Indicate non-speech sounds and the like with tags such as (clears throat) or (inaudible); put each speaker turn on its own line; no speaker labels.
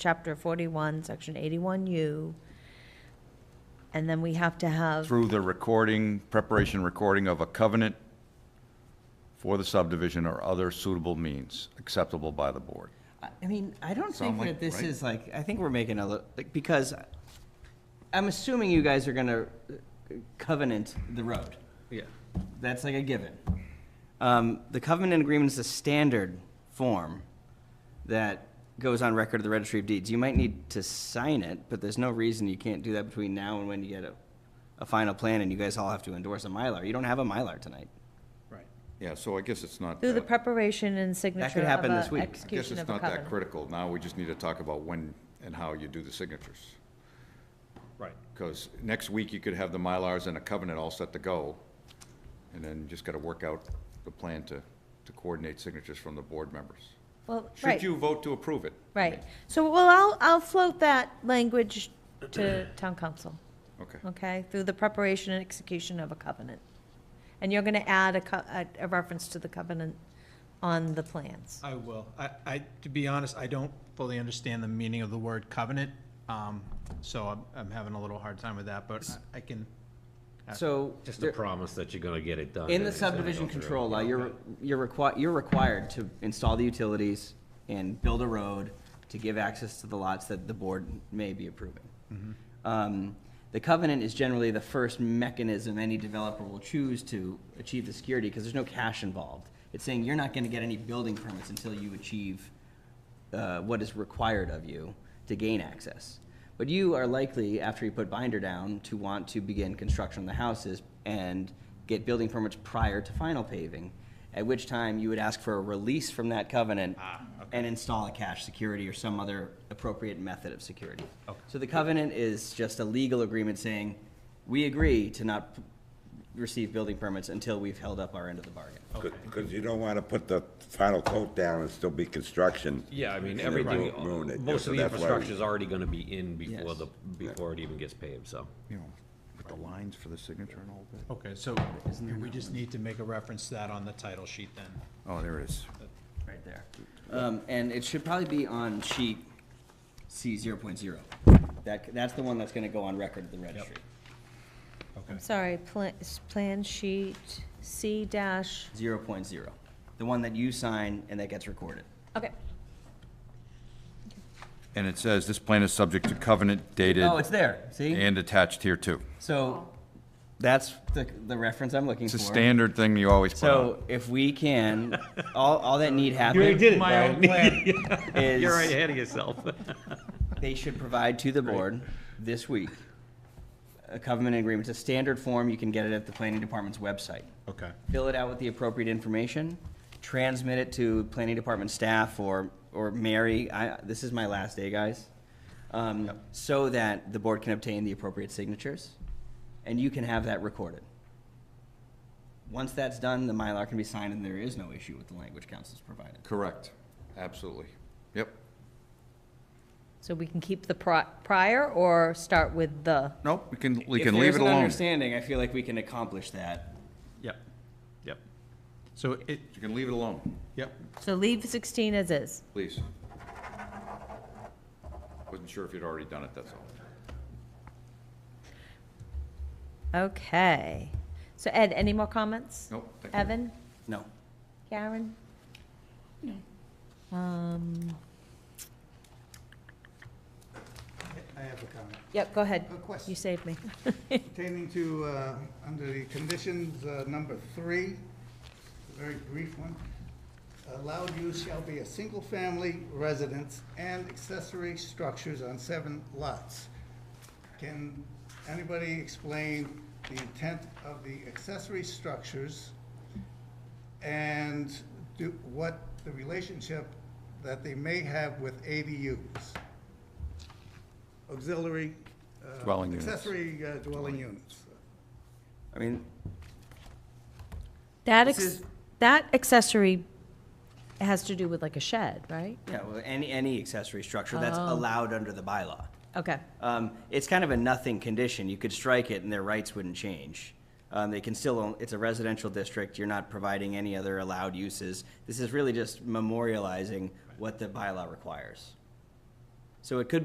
chapter forty-one, section eighty-one U. And then we have to have,
through the recording, preparation, recording of a covenant for the subdivision or other suitable means acceptable by the board.
I I mean, I don't
Sound
think
like-
that this
right?
is like, I think we're making a, li- like, because I'm assuming you guys are gonna uh, covenant the road.
Yeah.
That's like a given. Um, the covenant agreement is a standard form that goes on record of the registry of deeds. You might need to sign it, but there's no reason you can't do that between now and when you get a, a final plan and you guys all have to endorse a Mylar. You don't have a Mylar tonight.
Right.
Yeah, so I guess it's not,
through the
that-
preparation and signature of
happen this
a
week. I guess
I guess
execution
it's
of a
not that
covenant.
critical. Now we just need to talk about when and how you do the signatures.
Right.
Because next week you could have the Mylars and a covenant all set to go. And then you just got to work out the plan to, to coordinate signatures from the board members.
Well,
Should
right,
you vote to approve it?
right. So, well, I'll, I'll float that language
(clears throat)
to town council.
Okay.
okay, through the preparation and execution of a covenant. And you're gonna add a co- a, a reference to the covenant on the plans.
I will. I, I, to be honest, I don't fully understand the meaning of the word covenant, um, so I'm, I'm having a little hard time with that, but I I can.
So.
Just a
there-
promise that you're gonna get it done.
In
and
the
it's gonna
subdivision
go through.
control law, you're, you're required, you're required to install the utilities and build a road to give access to the lots that the board may be approving.
Mm-hmm.
Um, The covenant is generally the first mechanism any developer will choose to achieve the security, because there's no cash involved. It's saying you're not gonna get any building permits until you achieve uh, what is required of you to gain access. But you are likely, after you put binder down, to want to begin construction of the houses and get building permits prior to final paving, at which time you would ask for a release from that covenant and install a cash security or some other appropriate method of security.
Okay.
So the covenant is just a legal agreement saying, we agree to not p- receive building permits until we've held up our end of the bargain.
Because you don't want to put the final coat down and still be construction.
Yeah, I mean,
And it
everything,
won't ruin it.
most
So
of the
that's why we-
infrastructure's already gonna be in before
Yes.
the, before it even gets paved, so.
You know, with the lines for the signature and all that.
Okay, so we just need to make a reference to that on the title sheet then.
Oh, there it is.
Right there. Um, and it should probably be on sheet C zero point zero. That, that's the one that's gonna go on record at the registry.
Okay.
Sorry, plan, plan sheet C dash,
Zero point zero. The one that you sign and that gets recorded.
okay.
And it says this plan is subject to covenant dated
Oh, it's there, see?
and attached here too.
So, that's the, the reference I'm looking
It's a
for.
standard thing you always put on.
So if we can, (laughs) all, all that need happen.
My
(laughs)
own plan.
Is.
You're right ahead of yourself.
They should provide to the board this week a covenant agreement. It's a standard form. You can get it at the planning department's website.
Okay.
Fill it out with the appropriate information, transmit it to planning department staff or, or Mary. I, this is my last day, guys. Um, so that the board can obtain the appropriate signatures and you can have that recorded. Once that's done, the Mylar can be signed and there is no issue with the language council's provided.
Correct, absolutely. Yep.
So we can keep the pri- prior or start with the,
Nope, we can, we
If
can leave
there's
it
an
alone.
Understanding, I feel like we can accomplish that.
Yep, yep. So it,
You can leave it alone,
yep,
so leave sixteen as is.
please. Wasn't sure if you'd already done it, that's all.
Okay. So Ed, any more comments?
Nope. thank you.
Evan,
No.
Karen? Um,
I have a comment.
Yep, go ahead.
A question.
You saved me.
Pertaining to, uh, under the conditions, uh, number three, a very brief one. Allowed use shall be a single-family residence and accessory structures on seven lots. Can anybody explain the intent of the accessory structures and do, what the relationship that they may have with ADUs? Auxiliary. uh,
Dwelling units.
Accessory uh, dwelling units.
I mean,
That,
This
ex-
is-
that accessory has to do with like a shed, right?
Yeah, well, any, any accessory structure that's allowed under the bylaw.
Okay,
Um, it's kind of a nothing condition. You could strike it and their rights wouldn't change. Um, they can still, own- it's a residential district. You're not providing any other allowed uses. This is really just memorializing what the bylaw requires. So it could